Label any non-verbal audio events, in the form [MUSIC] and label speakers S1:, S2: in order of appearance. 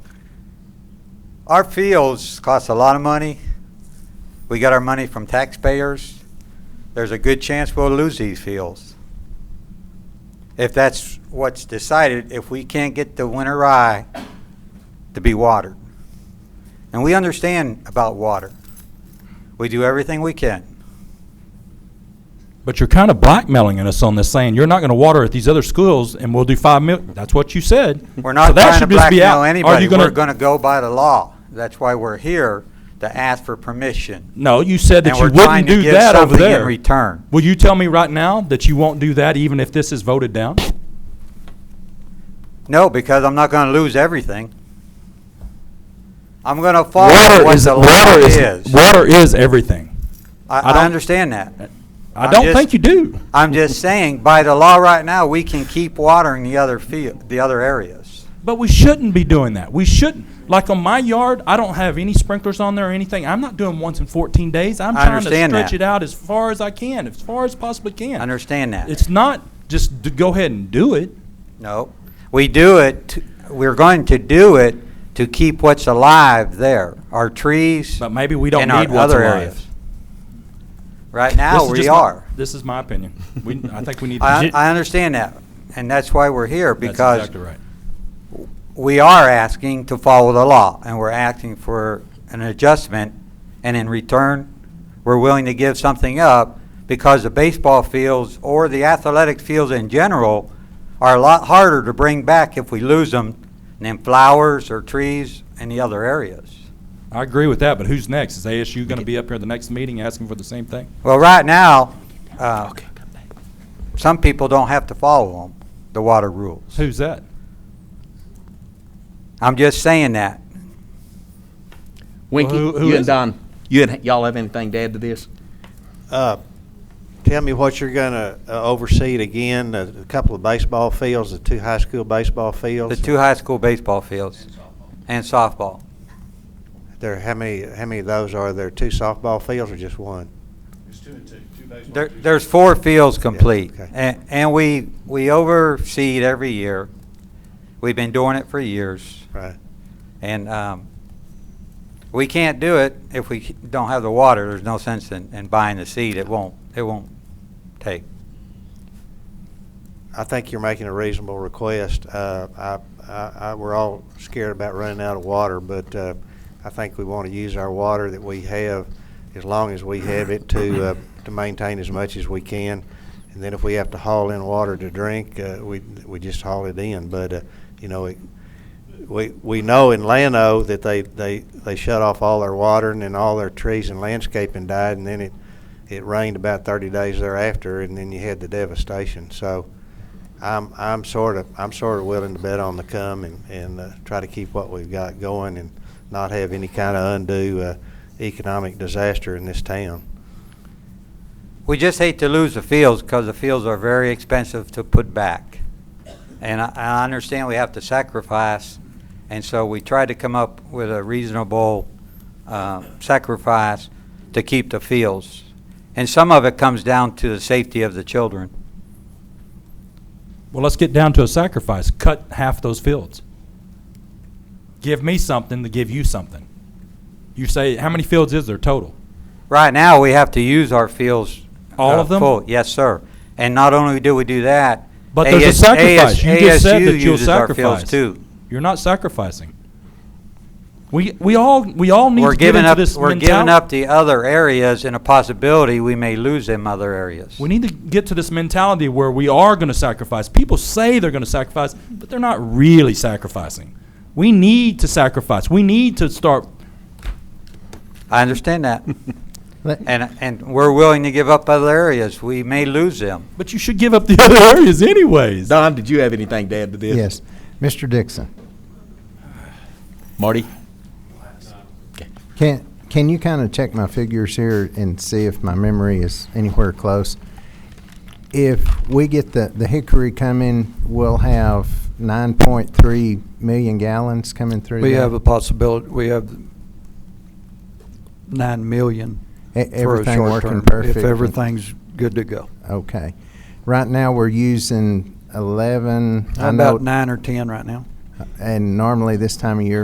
S1: Our fields cost a lot of money. We got our money from taxpayers. There's a good chance we'll lose these fields. If that's what's decided, if we can't get the winter rye to be watered. And we understand about water. We do everything we can.
S2: But you're kind of blackmailing us on this, saying you're not going to water at these other schools, and we'll do five mil. That's what you said.
S1: We're
S2: So
S1: not
S2: that
S1: trying to
S2: should just be out.
S1: blackmail
S2: Are you
S1: anybody.
S2: gonna-
S1: We're gonna go by the law. That's why we're here, to ask for permission.
S2: No, you said that
S1: And
S2: you
S1: we're trying
S2: wouldn't
S1: to
S2: do
S1: give
S2: that over
S1: something
S2: there.
S1: in return.
S2: Will you tell me right now that you won't do that, even if this is voted down?
S1: No, because I'm not gonna lose everything. I'm gonna follow
S2: Water
S1: what
S2: is
S1: the
S2: water
S1: law
S2: is
S1: is.
S2: water is everything. I
S1: I, I
S2: don't-
S1: understand that.
S2: I
S1: I'm
S2: don't
S1: just-
S2: think you do.
S1: I'm just saying, by the law right now, we can keep watering the other field, the other areas.
S2: But we shouldn't be doing that. We shouldn't. Like on my yard, I don't have any sprinklers on there or anything. I'm not doing once in 14 days. I'm
S1: I
S2: trying to
S1: understand
S2: stretch
S1: that.
S2: it out as far as I can, as far as possibly can.
S1: Understand that?
S2: It's not just to go ahead and do it.
S1: No. We do it, to- we're going to do it to keep what's alive there, our trees.
S2: But maybe we don't
S1: and our
S2: need what's
S1: other
S2: alive.
S1: areas. Right
S2: This
S1: now,
S2: is
S1: we
S2: just my-
S1: are.
S2: This is my opinion. We, I think we need to.
S1: I, I understand that, and that's why we're here,
S2: That's
S1: because
S2: exactly right.
S1: we are asking to follow the law, and we're asking for an adjustment, and in return, we're willing to give something up because the baseball fields or the athletic fields in general are a lot harder to bring back if we lose them than flowers or trees and the other areas.
S2: I agree with that, but who's next? Is ASU going to be up here at the next meeting asking for the same thing?
S1: Well, right now, uh, some people don't have to follow them, the water rules.
S2: Who's that?
S1: I'm just saying that.
S3: Winky,
S2: Well, who- who
S3: you
S2: is
S3: and
S2: it?
S3: Don, you and y'all have anything to add to this?
S4: Uh, Tell me what you're going to oversee it again, a a couple of baseball fields, the two high school baseball
S1: The
S4: fields.
S1: two high school baseball fields. And softball.
S4: There, how many, how many of those are there? Two softball fields or just one?
S5: It's two and two, two baseball.
S1: There,
S5: two-
S1: there's four fields complete.
S4: okay.
S1: And, and we, we oversee it every year. We've been doing it for years.
S4: Right.
S1: And, um, we can't do it if we don't have the water. There's no sense in, in buying the seed. It won't, it won't take.
S4: I think you're making a reasonable request. Uh, I, I, I- we're all scared about running out of water, but uh, I think we want to use our water that we have, as long as we have it, to, uh, to maintain as much as we can. And then if we have to haul in water to drink, uh, we, we just haul it in. But, uh, you know, it- we, we know in Llano that they, they, they shut off all their water and then all their trees and landscaping died, and then it, it rained about 30 days thereafter, and then you had the devastation. So I'm, I'm sort of, I'm sort of willing to bet on the come and, and uh, try to keep what we've got going and not have any kind of undue uh, economic disaster in this town.
S1: We just hate to lose the fields because the fields are very expensive to put back. And I, I understand we have to sacrifice, and so we tried to come up with a reasonable, uh, sacrifice to keep the fields. And some of it comes down to the safety of the children.
S2: Well, let's get down to a sacrifice. Cut half those fields. Give me something to give you something. You say, how many fields is there total?
S1: Right now, we have to use our fields.
S2: All
S1: uh,
S2: of them?
S1: full. Yes, sir. And not only do we do that.
S2: But there's a
S1: AS
S2: sacrifice. You just said
S1: ASU
S2: that you'll
S1: uses our fields
S2: sacrifice.
S1: too.
S2: You're not sacrificing. We, we all, we all need
S1: We're
S2: to get
S1: giving
S2: into
S1: up,
S2: this
S1: we're
S2: mentality.
S1: giving up the other areas and a possibility we may lose them other areas.
S2: We need to get to this mentality where we are going to sacrifice. People say they're going to sacrifice, but they're not really sacrificing. We need to sacrifice. We need to start.
S1: I understand that.
S6: Let-
S1: And, and we're willing to give up other areas. We may lose them.
S2: But you should give up the [LAUGHS] other areas, anyways.
S3: Don, did you have anything to add to this?
S6: Yes. Mr. Dixon,
S3: Marty?
S6: can, can you kind of check my figures here and see if my memory is anywhere close? If we get the, the Hickory coming, we'll have 9.3 million gallons coming through
S7: We
S6: there?
S7: have a possibility, we have nine million
S6: E-
S7: for a
S6: everything
S7: short
S6: working
S7: term,
S6: perfect
S7: if
S6: and-
S7: everything's good to go.
S6: Okay. Right now, we're using 11, I know,
S7: About nine or 10 right now.
S6: and normally this time of year,